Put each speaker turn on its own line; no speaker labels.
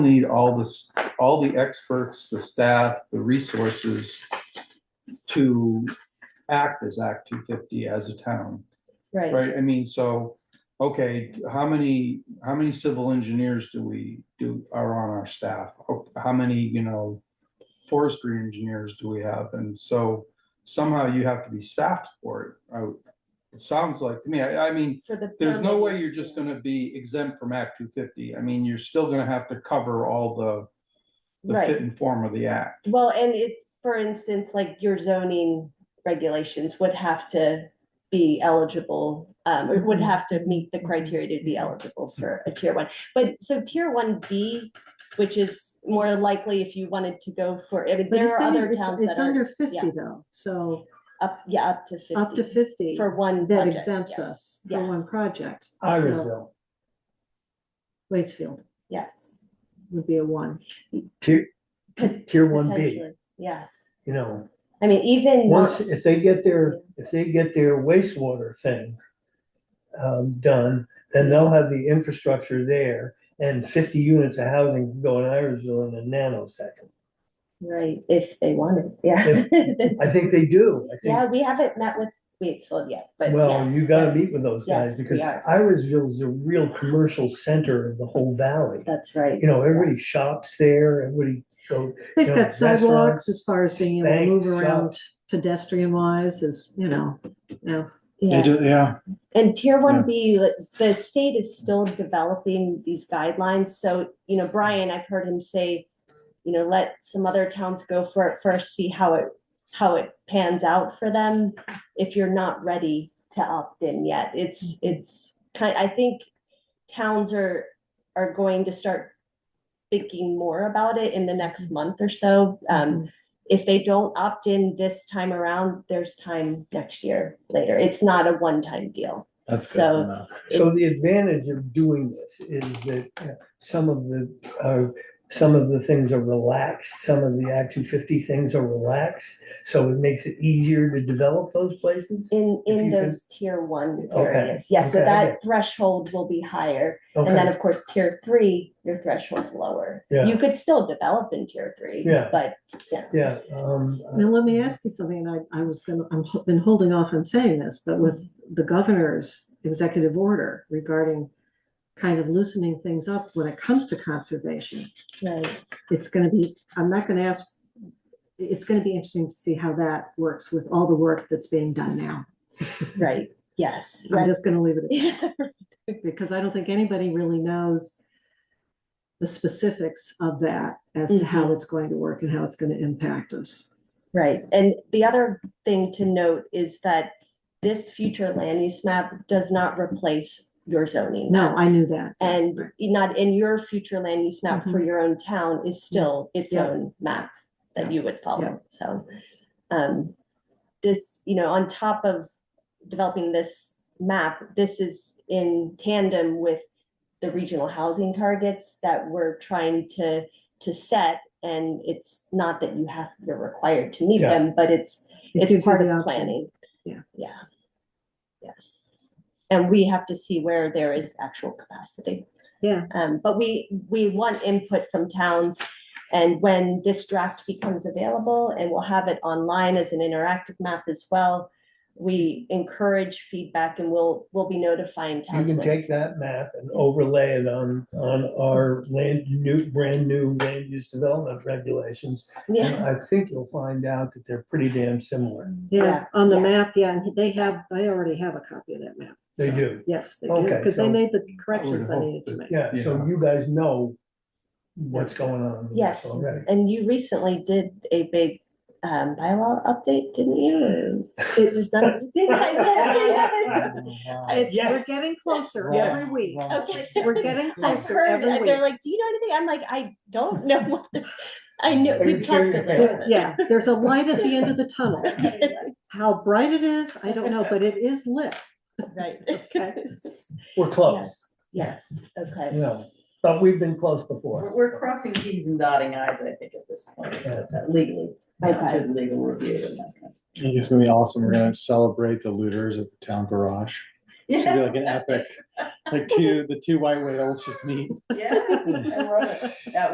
need all this, all the experts, the staff, the resources to act as Act two fifty as a town,
Right,
right? I mean, so, okay, how many, how many civil engineers do we, do, are on our staff? How- How many, you know, forestry engineers do we have? And so somehow you have to be staffed for it. I- It sounds like, to me, I, I mean,
for the.
there's no
permit.
way you're just gonna be exempt from Act two fifty. I mean, you're still gonna have to cover all the, the
Right.
fit and form of the act.
Well, and it's, for instance, like your zoning regulations would have to be eligible, um, or would have to meet the criteria to be
Mm-hmm.
eligible for a tier one. But so tier one B, which is more likely if you wanted to go for, I mean,
But
there
it's
are
under-
other
it's-
towns that
It's
are
under fifty though, so
up, yeah, up to fifty.
up to fifty
For one
that
project.
exempts
yes,
us for one
yes.
project. So
Irisville,
Waitsfield
Yes.
would be a one.
tier, tier one B,
potentially, Yes.
you know,
I mean, even.
once,
not-
if they get their, if they get their wastewater thing um, done, then they'll have the infrastructure there and fifty units of housing can go in Irisville in a nanosecond.
Right, if they wanted, yeah.
I think they do, I
Yeah,
think,
we haven't met with Waitsfield yet, but.
well,
yes,
you gotta
that-
meet with those guys
Yes,
because
we are.
Irisville's the real commercial center of the whole valley.
That's right.
You know, everybody shops there, everybody goes,
They've
Yeah,
got sidewalks
restaurants,
as far as being able to
banks,
move around pedestrian wise is, you know, no.
Yeah.
yeah.
And tier
Yeah.
one B, like, the state is still developing these guidelines. So, you know, Brian, I've heard him say, you know, let some other towns go for it first, see how it, how it pans out for them. If you're not ready to opt in yet, it's,
Mm-hmm.
it's kind, I think towns are, are going to start thinking more about it in the next
Mm-hmm.
month or so. Um, if they don't opt in this time around, there's time next year later. It's not a one-time deal.
That's good.
So-
enough.
So the advantage of doing this is that uh, some of the, uh, some of the things are relaxed, some of the Act two fifty things are relaxed. So it makes it easier to develop those places.
In,
If
in
you can-
those tier one
Okay,
areas, yes, so
okay,
that threshold will be higher. And then,
Okay,
of course, tier three, your threshold's lower.
Yeah.
You could still develop in tier three,
Yeah.
but, yeah.
yeah, um, uh,
Now, let me ask you something, and I, I was gonna, I'm, ho- been holding off on saying this, but with the governor's executive order regarding kind of loosening things up when it comes to conservation,
Right,
it's gonna be, I'm not gonna ask, it's gonna be interesting to see how that works with all the work that's being done now.
right, yes.
I'm just gonna leave it at that.
Yeah,
because I don't think anybody really knows the specifics of that as to
Mm-hmm.
how it's going to work and how it's going to impact us.
Right, and the other thing to note is that this future land use map does not replace your zoning.
No, I knew that.
And
Right.
not in your future land use map for your own town is still its
Mm-hmm. Yeah.
own map
Yeah.
that you would
Yeah.
follow, so. Um, this, you know, on top of developing this map, this is in tandem with the regional housing targets that we're trying to, to set. And it's not that you have, you're required to meet
Yeah.
them, but it's
It
it's
gives you
part
the
of
option.
planning.
Yeah.
Yeah. Yes. And we have to see where there is actual capacity.
Yeah.
Um, but we, we want input from towns. And when this draft becomes available, and we'll have it online as an interactive map as well, we encourage feedback and we'll, we'll be notifying
you
towns.
can
when-
take that map and overlay it on, on our land, new, brand new land use development regulations. And
Yeah,
I think you'll find out that they're pretty damn similar.
Yeah,
Yeah,
on the
yeah.
map, yeah, and they have, I already have a copy of that map.
They
so,
do.
Yes, they do,
Okay,
because they
so-
made the corrections I
hope
needed to
that-
make.
Yeah, so
Yeah.
you guys know what's going on with
Yes.
this already.
and you recently did a big, um, bylaw update, didn't you? There's none-
It's, we're
Yes.
getting closer
Yes.
every week.
Okay.
We're getting
I've
closer
heard,
every
it. they're
week.
like, do you know anything? I'm like, I don't know what, the-" I know,
Are
we
you
talked
kidding?
about
There-
it.
Yeah, there's a light at the end of the tunnel. How bright it is, I don't know, but it is lit.
Right.
Okay.
We're close.
Yes, okay.
Yeah, but we've been close before.
We're, we're crossing Ts and dotting Is, I think, at this point, so it's a legally,
Okay.
through legal review and that kind of.
It's gonna be awesome. We're gonna celebrate the looters at the town garage. It's gonna be like an epic, like two, the two white whales just meet.
Yeah, I love it. That